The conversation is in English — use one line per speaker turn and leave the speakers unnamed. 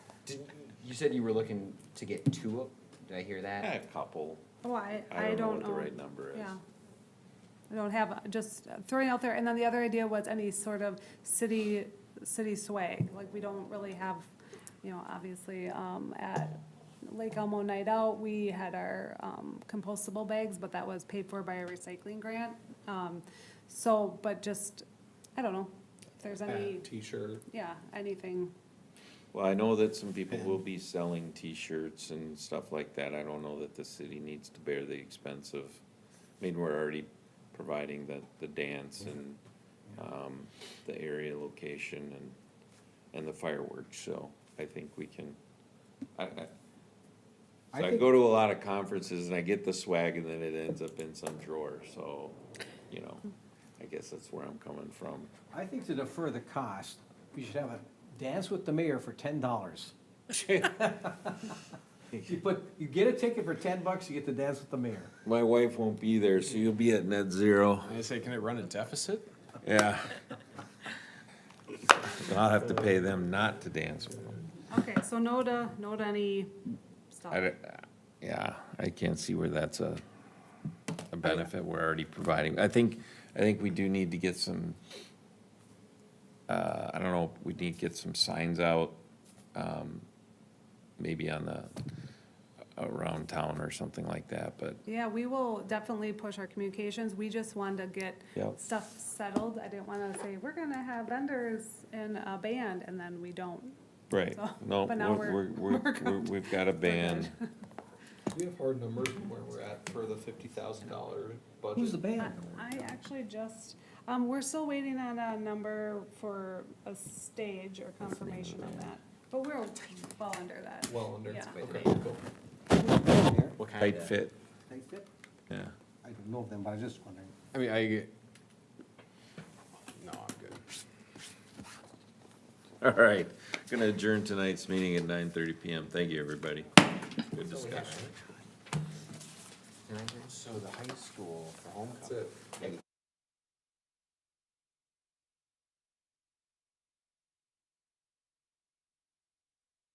Did- You said you were looking to get two of, did I hear
Yeah, a
that?
couple.
Oh, I,
I
I
don't know
don't
what
know.
the right number is.
Yeah. I don't have, uh, just throwing out there, and then the other idea was any sort of city, city swag, like, we don't really have, you know, obviously, um, at Lake Elmo Night Out, we had our, um, compostable bags, but that was paid for by a recycling grant, um, so, but just, I don't know, if there's any,
T-shirt.
yeah, anything,
Well, I know that some people will be selling T-shirts and stuff like that. I don't know that the city needs to bear the expense of, I mean, we're already providing the, the dance and, um, the area location and, and the fireworks, so I think we can, I, I,
I
so I
think-
go to a lot of conferences and I get the swag and then it ends up in some drawer, so, you know, I guess that's where I'm coming from.
I think to defer the cost, we should have a dance with the mayor for ten dollars. You put, you get a ticket for ten bucks, you get to dance with the mayor.
My wife won't be there, so you'll be at net zero.
I say, can it run a deficit?
Yeah. I'll have to pay them not to dance with them.
okay, so no to, no to any stuff.
I don't, yeah, I can't see where that's a, a benefit we're already providing. I think, I think we do need to get some, uh, I don't know, we need to get some signs out, um, maybe on the, around town or something like that, but
Yeah, we will definitely push our communications. We just wanted to get
Yep.
stuff settled. I didn't want to say, we're going to have vendors and a band, and then we don't.
Right,
So,
no,
Oh, but now
we're,
we're-
we're,
we're
we're,
good.
we've got a ban.
We have hard numbers from where we're at for the fifty thousand dollar budget.
Who's the
I
band?
I actually just, um, we're still waiting on a number for a stage or confirmation on that. But we're well under that.
Well, under.
Yeah.
Okay, cool.
What kind
Tight
of?
fit,
I
yeah.
don't know them, but I was just wondering.
I mean, I get. No, I'm good.
All right, gonna adjourn tonight's meeting at nine thirty PM. Thank you, everybody. Good discussion.
So the high school for
That's
homecoming,
it.
they